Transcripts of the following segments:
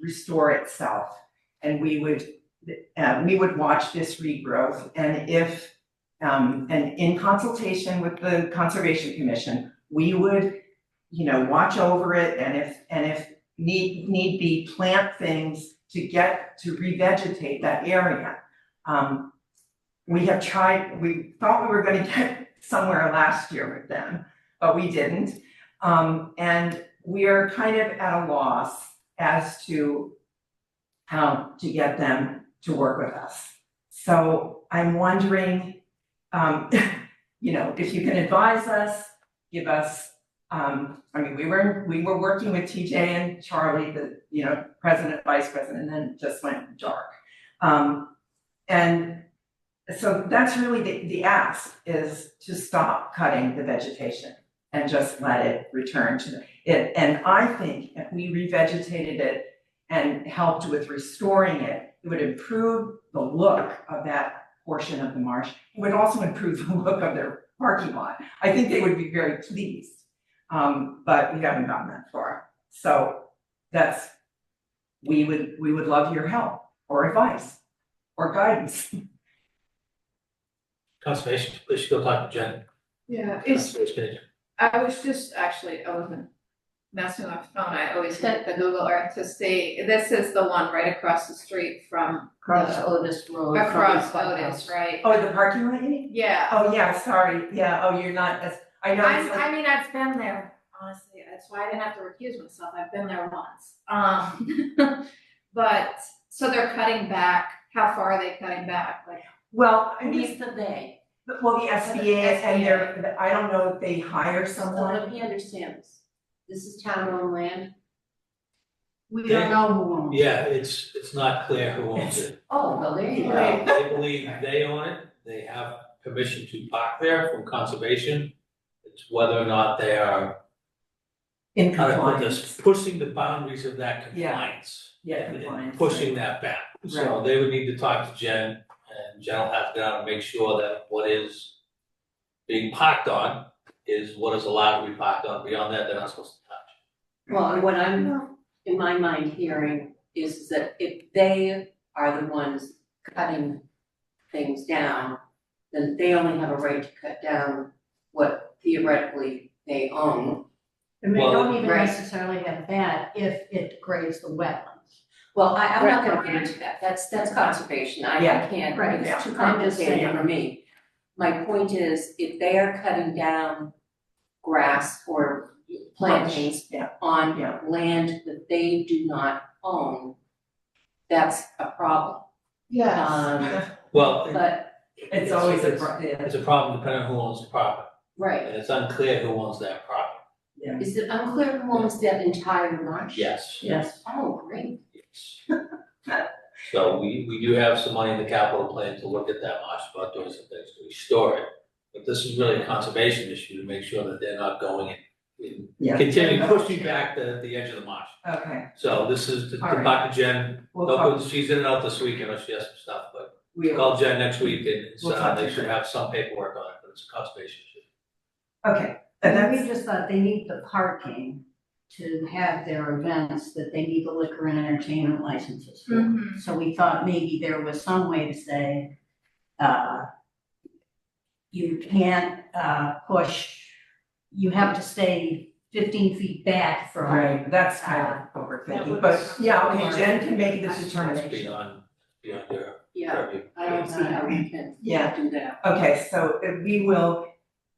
restore itself. And we would, uh, we would watch this regrowth and if, um, and in consultation with the Conservation Commission, we would, you know, watch over it and if, and if need, need be, plant things to get, to revegetate that area. Um, we have tried, we thought we were gonna get somewhere last year with them, but we didn't. Um, and we are kind of at a loss as to how to get them to work with us. So I'm wondering, um, you know, if you can advise us, give us, um, I mean, we were, we were working with TJ and Charlie, the, you know, president, vice president, and then just went dark. Um, and so that's really the, the ask is to stop cutting the vegetation and just let it return to it. And I think if we revegetated it and helped with restoring it, it would improve the look of that portion of the marsh. It would also improve the look of their parking lot. I think they would be very pleased. Um, but we haven't gotten that far. So that's, we would, we would love your help or advice or guidance. Conservation, please should go talk to Jen. Yeah, it's, Conservation. I was just, actually, I wasn't messing with my phone, I always hit the Google Earth to see, this is the one right across the street from, Across Otis Road. from across the clubhouse. Otis, right? Oh, the parking lot, you mean? Yeah, Oh, yeah, sorry, yeah, oh, you're not, as I know, I, it's like, I mean, I've been there, honestly, that's why I didn't have to recuse myself, I've been there once. Um, but, so they're cutting back, how far are they cutting back, like, well, I Who mean, is the they? well, the SBA and SBA. they're, I don't know if they hire someone. Someone he understands. This is town owned land. We Yeah. don't know who owns it. Yeah, it's, it's not clear who owns it. Uh, Oh, well, there you go. Right. They believe they own it, they have permission to park there from conservation. It's whether or not they are, In how to put this, compliance, pushing the boundaries of that Yeah. compliance. yeah, and- and compliance. Pushing that back. So they would need to talk to Jen, and Jen will have to go down and make sure that what is being parked on is what is allowed to be parked on. Beyond that, they're not supposed to touch. Well, and what I'm, in my mind, hearing is that if they are the ones cutting things down, then they only have a right to cut down what theoretically they own. And they Well, don't even Right. necessarily have that if it degrades the wetlands. Well, I, I'm not gonna Right. get into that, that's, that's conservation, I, I Yeah. can't, Right, yeah. it's too I'm just complicated saying. for me. My point is, if they are cutting down grass or plantings Yeah. on Yeah. land that they do not own, that's a problem. Uh, Um, Well, but, It's always a, pro- yeah, It's a problem depending on who owns the property, right, and it's unclear who owns that property. is it unclear who owns that entire marsh? Yes, yes, Oh, great, yes. So we, we do have some money in the capital plan to look at that marsh, about doing some things to restore it. But this is really a conservation issue to make sure that they're not going in, Yeah. in, continue pushing back the, the edge of the marsh. okay, So this is to, to All right. talk to Jen, we'll talk, she's in and out this week, I know she has some stuff, but we will, call Jen next week and, We'll talk uh, to they should her. have some paperwork on it, but it's a conservation issue. okay, and And that's, we just thought they need the parking to have their events, that they need the liquor and entertainment licenses for. Mm-hmm. So we thought maybe there was some way to say, uh, you can't, uh, push, you have to stay fifteen feet back from, right, that's kind of overthinking, but, yeah, okay, Jen can make this It's determination. beyond, beyond your yeah, purview. I don't see how we can Yeah. do that. Okay, so if we will,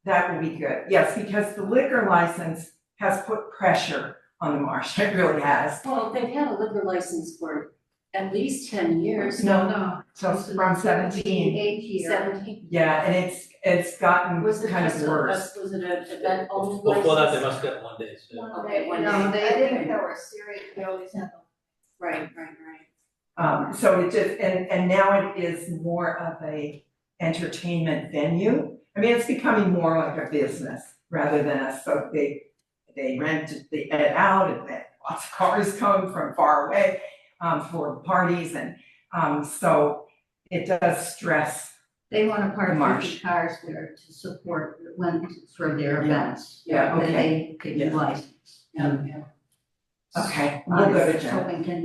that will be good, yes, because the liquor license has put pressure on the marsh, it really has. Well, they've had a liquor license for at least ten years, No, no, So from seventeen, eight year. seventeen. yeah, and it's, it's gotten Was it kind just of a, worse. was it an event only license? Before that, they must get one day, so. Okay, one no, day. they, I think there were serious, they always had them. Right, right, right. Um, so it just, and, and now it is more of a entertainment venue. I mean, it's becoming more like a business rather than a, so they, they rent the it out and then lots of cars come from far away, um, for parties and, um, so it does stress, They wanna The park marsh. fifty cars there to support, when, for their Yeah. events. Yeah, that okay. They could Yeah. utilize. Yeah, yeah. okay, we'll go to Jen. Hoping can